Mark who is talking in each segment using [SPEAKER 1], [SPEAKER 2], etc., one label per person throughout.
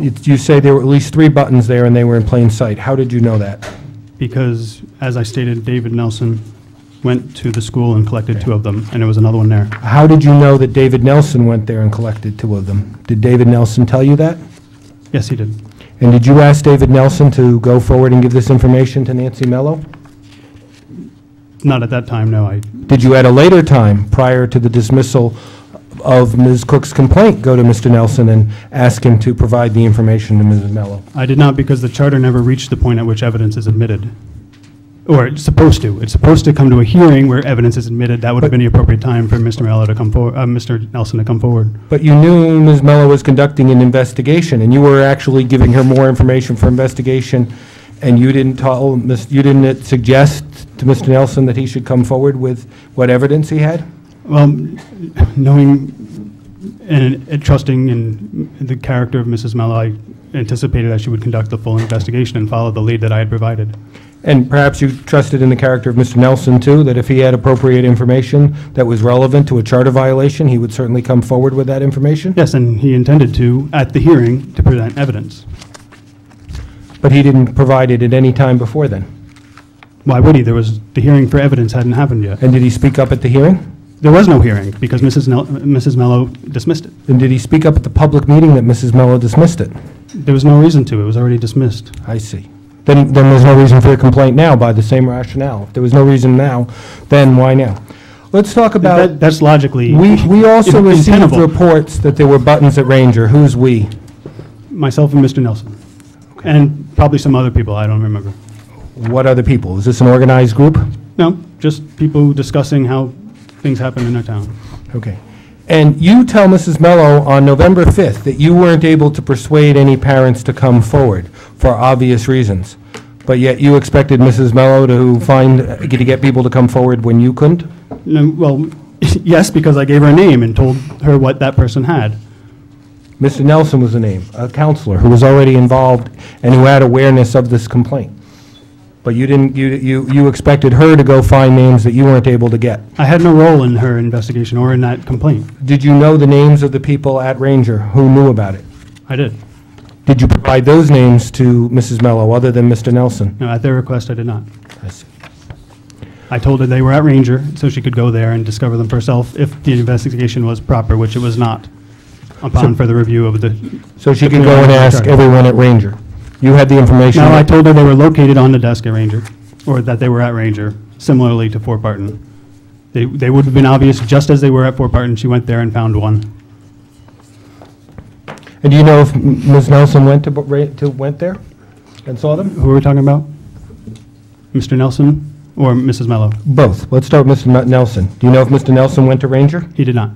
[SPEAKER 1] You you say there were at least three buttons there and they were in plain sight. How did you know that?
[SPEAKER 2] because, as I stated, David Nelson went to the school and collected two of them, and there was another one there.
[SPEAKER 1] How did you know that David Nelson went there and collected two of them? Did David Nelson tell you that?
[SPEAKER 2] Yes, he did.
[SPEAKER 1] And did you ask David Nelson to go forward and give this information to Nancy Mello?
[SPEAKER 2] Not at that time, no, I,
[SPEAKER 1] Did you at a later time, prior to the dismissal of Ms. Cook's complaint, go to Mr. Nelson and ask him to provide the information to Mrs. Mello?
[SPEAKER 2] I did not because the charter never reached the point at which evidence is admitted. Or it's supposed to. It's supposed to come to a hearing where evidence is admitted. That would have been the appropriate time for Mr. Mello to come forward, uh, Mr. Nelson to come forward.
[SPEAKER 1] But you knew Ms. Mello was conducting an investigation, and you were actually giving her more information for investigation, and you didn't tell, Ms. you didn't suggest to Mr. Nelson that he should come forward with what evidence he had?
[SPEAKER 2] Well, m- knowing and and trusting in the character of Mrs. Mello, I anticipated that she would conduct the full investigation and follow the lead that I had provided.
[SPEAKER 1] And perhaps you trusted in the character of Mr. Nelson, too, that if he had appropriate information that was relevant to a charter violation, he would certainly come forward with that information?
[SPEAKER 2] Yes, and he intended to, at the hearing, to present evidence.
[SPEAKER 1] But he didn't provide it at any time before then?
[SPEAKER 2] Why would he? There was, the hearing for evidence hadn't happened yet.
[SPEAKER 1] And did he speak up at the hearing?
[SPEAKER 2] There was no hearing because Mrs. Nel- Mrs. Mello dismissed it.
[SPEAKER 1] And did he speak up at the public meeting that Mrs. Mello dismissed it?
[SPEAKER 2] There was no reason to. It was already dismissed.
[SPEAKER 1] I see. Then, then there's no reason for your complaint now by the same rationale. If there was no reason now, then why now? Let's talk
[SPEAKER 2] That-
[SPEAKER 1] about,
[SPEAKER 2] That's logically.
[SPEAKER 1] we, we also
[SPEAKER 2] in-
[SPEAKER 1] received
[SPEAKER 2] untenable.
[SPEAKER 1] reports that there were buttons at Ranger. Who's "we"?
[SPEAKER 2] Myself and Mr. Nelson. And probably some other people. I don't remember.
[SPEAKER 1] What other people? Is this an organized group?
[SPEAKER 2] No, just people discussing how things happen in their town.
[SPEAKER 1] Okay. And you tell Mrs. Mello on November 5th that you weren't able to persuade any parents to come forward for obvious reasons, but yet you expected Mrs. Mello to find, to get people to come forward when you couldn't?
[SPEAKER 2] No, well, yes, because I gave her a name and told her what that person had.
[SPEAKER 1] Mr. Nelson was the name, a counselor who was already involved and who had awareness of this complaint. But you didn't, you, you you expected her to go find names that you weren't able to get.
[SPEAKER 2] I had no role in her investigation or in that complaint.
[SPEAKER 1] Did you know the names of the people at Ranger who knew about it?
[SPEAKER 2] I did.
[SPEAKER 1] Did you provide those names to Mrs. Mello, other than Mr. Nelson?
[SPEAKER 2] No, at their request, I did not.
[SPEAKER 1] I see.
[SPEAKER 2] I told her they were at Ranger, so she could go there and discover them for herself if the investigation was proper, which it was not, upon further review of the...
[SPEAKER 1] So she could go and ask everyone at Ranger. You had the information.
[SPEAKER 2] No, I told her they were located on the desk at Ranger, or that they were at Ranger, similarly to Fort Barton. They, they would have been obvious just as they were at Fort Barton. She went there and found one.
[SPEAKER 1] And do you know if M- Ms. Nelson went to, Bo- Ra- to, went there and saw them?
[SPEAKER 2] Who are we talking about? Mr. Nelson or Mrs. Mello?
[SPEAKER 1] Both. Let's start with Mr. Mel- Nelson. Do you know if Mr. Nelson went to Ranger?
[SPEAKER 2] He did not.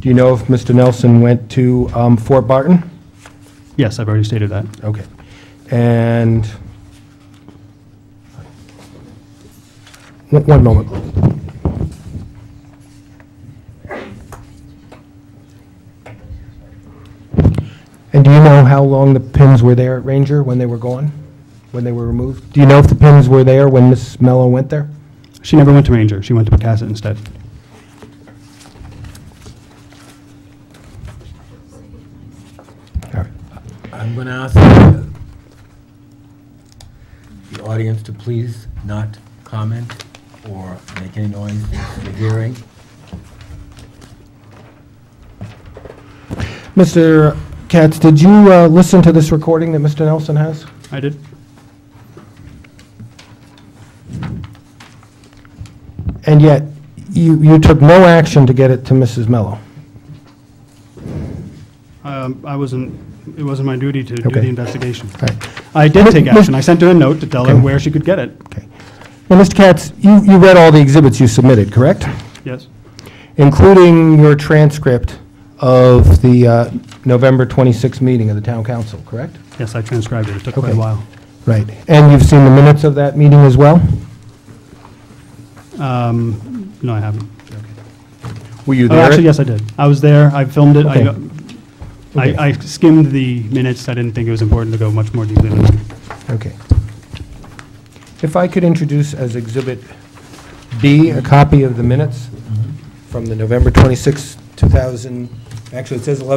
[SPEAKER 1] Do you know if Mr. Nelson went to um, Fort Barton?
[SPEAKER 2] Yes, I've already stated that.
[SPEAKER 1] Okay. And, one one moment. And do you know how long the pins were there at Ranger when they were gone, when they were removed? Do you know if the pins were there when Miss Mello went there?
[SPEAKER 2] She never went to Ranger. She went to Pecasset instead.
[SPEAKER 1] All right.
[SPEAKER 3] I'm going to ask the the audience to please not comment or make any noise in the hearing.
[SPEAKER 1] Mr. Katz, did you uh, listen to this recording that Mr. Nelson has?
[SPEAKER 2] I did.
[SPEAKER 1] And yet, you, you took no action to get it to Mrs. Mello.
[SPEAKER 2] Um, I wasn't, it wasn't my duty to do
[SPEAKER 1] Okay.
[SPEAKER 2] the investigation.
[SPEAKER 1] Right.
[SPEAKER 2] I did take
[SPEAKER 1] Mis-
[SPEAKER 2] action. I sent her a note to tell her
[SPEAKER 1] Okay.
[SPEAKER 2] where she could get it.
[SPEAKER 1] Okay. Now, Mr. Katz, you, you read all the exhibits you submitted, correct?
[SPEAKER 2] Yes.
[SPEAKER 1] Including your transcript of the uh, November 26th meeting of the town council, correct?
[SPEAKER 2] Yes, I transcribed it. It took quite a
[SPEAKER 1] Okay.
[SPEAKER 2] while.
[SPEAKER 1] Right. And you've seen the minutes of that meeting as well?
[SPEAKER 2] Um, No, I haven't.
[SPEAKER 1] Were you
[SPEAKER 2] Oh,
[SPEAKER 1] there?
[SPEAKER 2] actually, yes, I did. I was there. I filmed it. I-
[SPEAKER 1] Okay. Okay.
[SPEAKER 2] I I skimmed the minutes. I didn't think it was important to go much more deeply than that.
[SPEAKER 1] Okay. If I could introduce as Exhibit B, a Mm-hmm. copy of the minutes from the November 26th, 2000, actually, it says 11.